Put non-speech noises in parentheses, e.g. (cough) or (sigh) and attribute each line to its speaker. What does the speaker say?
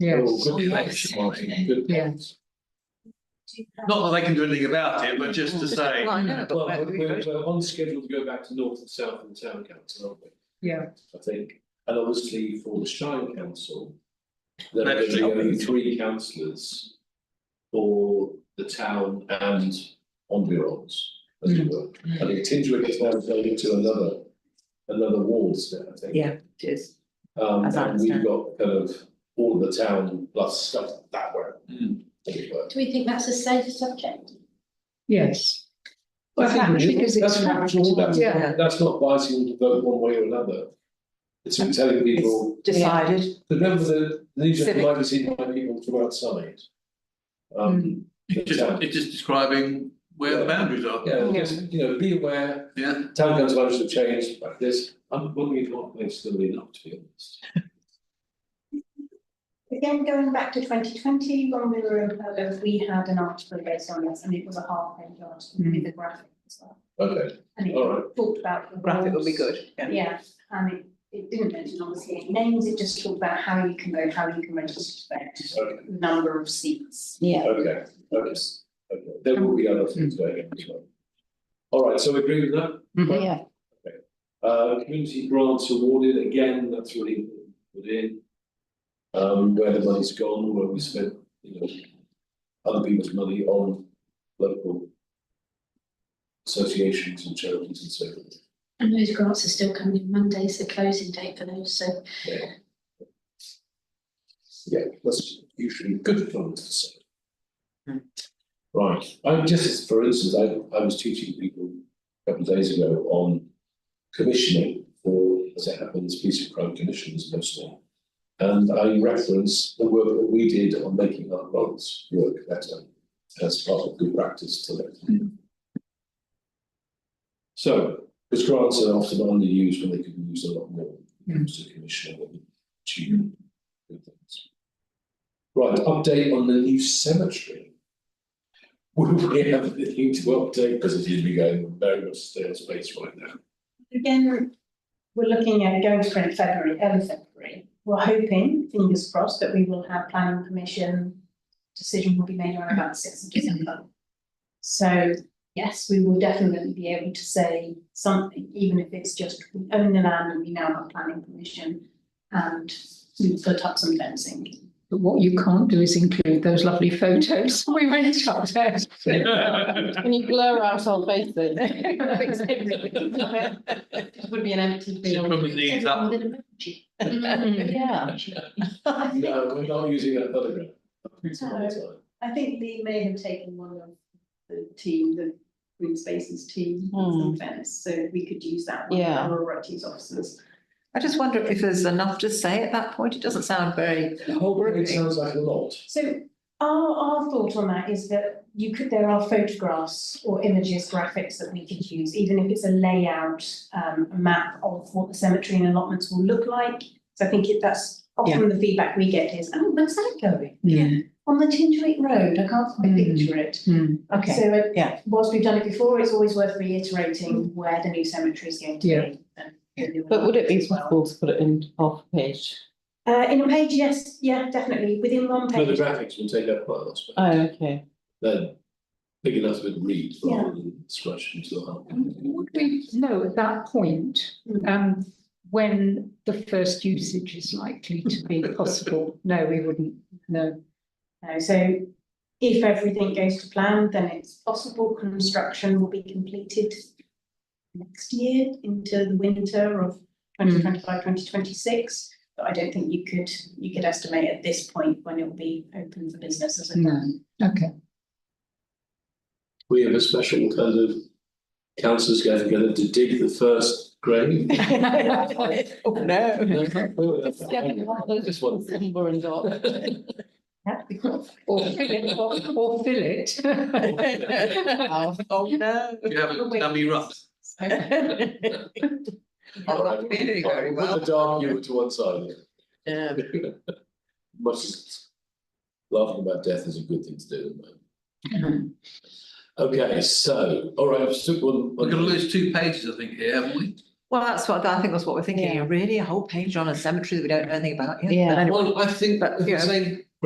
Speaker 1: Yes,
Speaker 2: Oh, good catch, Martin, good
Speaker 1: Yeah.
Speaker 2: catch.
Speaker 3: Not that they can do anything about it, but just to say,
Speaker 4: Well, I know, but
Speaker 2: Well,
Speaker 4: where do we
Speaker 2: we're,
Speaker 4: go?
Speaker 2: we're on schedule to go back to north and south in the town council, aren't we?
Speaker 1: yeah,
Speaker 2: I think, and obviously for the Shire Council. There are
Speaker 3: Actually,
Speaker 2: going to be only
Speaker 3: I-
Speaker 2: three councillors for the town and environs, as
Speaker 4: Hmm.
Speaker 2: it were. I think Tinswick is now going into another, another ward now, I think.
Speaker 4: Yeah, it is.
Speaker 2: Um,
Speaker 4: as I
Speaker 2: and we've
Speaker 4: understand.
Speaker 2: got kind of all of the town plus stuff that way.
Speaker 3: Mm.
Speaker 2: as it were.
Speaker 5: Do we think that's a safe subject?
Speaker 1: yes.
Speaker 2: I think we should.
Speaker 1: Because it's
Speaker 2: That's factual, that's,
Speaker 1: Yeah.
Speaker 2: that's not biasing to vote one way or another. It's been telling people.
Speaker 4: It's decided.
Speaker 2: The members of the Legion of
Speaker 4: Civic.
Speaker 2: Democracy by people from outside. Um, the
Speaker 3: it's just,
Speaker 2: town.
Speaker 3: it's just describing where the boundaries are.
Speaker 2: Yeah, just, you know, be aware,
Speaker 3: Yeah,
Speaker 2: town council managers have changed like this, I'm wondering if what they're still enough, to be honest.
Speaker 5: Again, going back to twenty twenty, when we were in Pogo, we had an article based on this and it was a half page article
Speaker 4: Mm.
Speaker 5: with a graphic as well.
Speaker 2: Okay,
Speaker 5: And it
Speaker 2: all right,
Speaker 5: talked about. the
Speaker 4: Graphic would be
Speaker 5: roles.
Speaker 4: good, yeah.
Speaker 5: Yeah, and it, it didn't mention obviously any names, it just talked about how you can vote, how you can register to vote,
Speaker 2: Okay.
Speaker 5: number of seats.
Speaker 4: Yeah.
Speaker 2: okay, okay, okay, there will be other things going on as well. All right, so we agree with that,
Speaker 4: Mhm.
Speaker 1: Yeah.
Speaker 2: uh, community grants awarded, again, that's really put in. Um, where the money's gone, where we spent, you know, other people's money on local. Associations and charities and so forth.
Speaker 6: And those grants are still coming in. Monday's the closing date for those, so
Speaker 2: Yeah, that's usually good fun to say.
Speaker 4: Hmm.
Speaker 2: Right, I just, for instance, I I was teaching people a couple of days ago on commissioning for, as it happens, piece of crime commissioners mostly. And I referenced the work that we did on making our grants work better as part of good practice to them. So, because grants are often underused when they could be used a lot more, when it comes to commissioning and achievement good things. Right, update on the new cemetery. Would we have anything to update, because it is going very much stale space right now.
Speaker 5: Again, we're looking at going to print February, early February. We're hoping, fingers crossed, that we will have planning permission. Decision will be made on about the sixth of December. So, yes, we will definitely be able to say something, even if it's just we own the land and we now have planning permission. And we put up some fencing.
Speaker 1: But what you can't do is include those lovely photos (laughs) we went up there.
Speaker 4: (laughs) Can you blur out our faces? Would be an empty
Speaker 3: it probably needs that,
Speaker 6: Everyone with an emoji.
Speaker 4: Yeah. (laughs)
Speaker 2: No, we're not using that photograph. It's not the time.
Speaker 5: I think Lee may have taken one of the team, the green spaces team,
Speaker 4: Hmm.
Speaker 5: some fence, so we could use that one.
Speaker 4: Yeah.
Speaker 5: Our rights officers.
Speaker 4: I just wonder if there's enough to say at that point. It doesn't sound
Speaker 7: (laughs)
Speaker 4: very, (laughs)
Speaker 2: The whole thing Oh, sounds like a lot.
Speaker 5: So our, our thought on that is that you could, there are photographs or images, graphics that we could use, even if it's a layout, um, a map of what the cemetery and allotments will look like. So I think it, that's often the feedback we get is, oh, where's that going?
Speaker 1: (laughs) Yeah,
Speaker 5: On the Tintoret Road, I can't quite
Speaker 1: Hmm.
Speaker 5: picture it.
Speaker 1: Hmm.
Speaker 4: okay,
Speaker 5: So uh,
Speaker 4: yeah.
Speaker 5: whilst we've done it before, it's always worth reiterating where the new cemetery is going to
Speaker 1: Yeah.
Speaker 5: be. and the new
Speaker 7: But would it be
Speaker 5: allotments as well.
Speaker 7: possible to put it in half a page?
Speaker 5: Uh, in a page, yes, yeah, definitely, within one
Speaker 2: No, the
Speaker 5: page.
Speaker 2: graphics will take up quite a lot of space.
Speaker 7: Oh, (laughs) okay.
Speaker 2: Then, big enough to read rather than scratch into the heart.
Speaker 1: Would we know at that point,
Speaker 5: Mm.
Speaker 1: um, when the first usage is likely to be possible? No, we wouldn't, no.
Speaker 5: No, so if everything goes to plan, then it's possible construction will be completed next year into the winter of
Speaker 7: Hmm.
Speaker 5: 2025, 2026. But I don't think you could, you could estimate at this point when it will be open for business as a.
Speaker 1: No. Okay,
Speaker 2: We have a special kind of councillors get together to dig the first grave.
Speaker 1: (laughs)
Speaker 7: Oh, no. Just get it while there's
Speaker 2: Just one.
Speaker 7: Somber (laughs) and dark.
Speaker 5: That'd be cool.
Speaker 1: or fill it, or, or fill it.
Speaker 7: Oh, oh, no.
Speaker 3: you have a dummy rough.
Speaker 1: (laughs)
Speaker 4: I'm not feeling very
Speaker 2: Put
Speaker 4: well.
Speaker 2: the dark humour to one side.
Speaker 7: Yeah.
Speaker 2: (laughs) Much as laughing about death is a good thing to do. isn't it?
Speaker 4: Mm-hmm.
Speaker 2: Okay, so, all right, I've took one.
Speaker 3: We're gonna lose two pages, I think, here, haven't we?
Speaker 4: Well, that's what, I think that's what we're thinking,
Speaker 7: Yeah.
Speaker 4: really, a whole page on a cemetery that we don't know anything about, yeah.
Speaker 7: Yeah.
Speaker 4: But anyway.
Speaker 3: Well, I think
Speaker 4: But,
Speaker 3: if
Speaker 4: yeah.
Speaker 3: we're saying